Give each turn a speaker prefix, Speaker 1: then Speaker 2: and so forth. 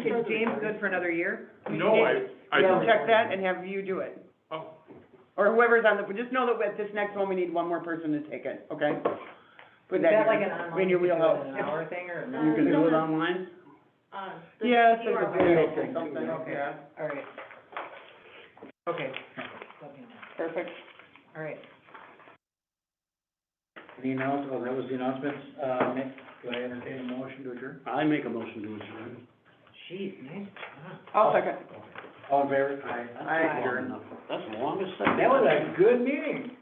Speaker 1: is James good for another year?
Speaker 2: No, I, I.
Speaker 1: We'll Check that and have you do it,
Speaker 2: Oh,
Speaker 1: or whoever's on the, just know that at this next one, we need one more person to take it, okay? Put
Speaker 3: Is
Speaker 1: that
Speaker 3: that like
Speaker 1: in-
Speaker 3: an online,
Speaker 1: in your
Speaker 3: you could do it
Speaker 1: wheelhouse.
Speaker 3: in an hour thing or? no?
Speaker 1: You can do it online?
Speaker 4: Um, the
Speaker 1: Yes,
Speaker 4: you
Speaker 1: there's
Speaker 4: are
Speaker 1: a
Speaker 4: right.
Speaker 1: video thing, something, yeah,
Speaker 3: All right. Okay. Let me know.
Speaker 1: perfect.
Speaker 3: All right.
Speaker 5: Any announce, oh, that was the announcements, uh, Nick, do I entertain a motion to adjourn?
Speaker 1: I make a motion to adjourn.
Speaker 3: Jeez, nice job.
Speaker 1: I'll second.
Speaker 5: All in favor? Aye.
Speaker 1: Aye.
Speaker 5: Adjourn.
Speaker 1: That's the longest
Speaker 5: That was a good meeting.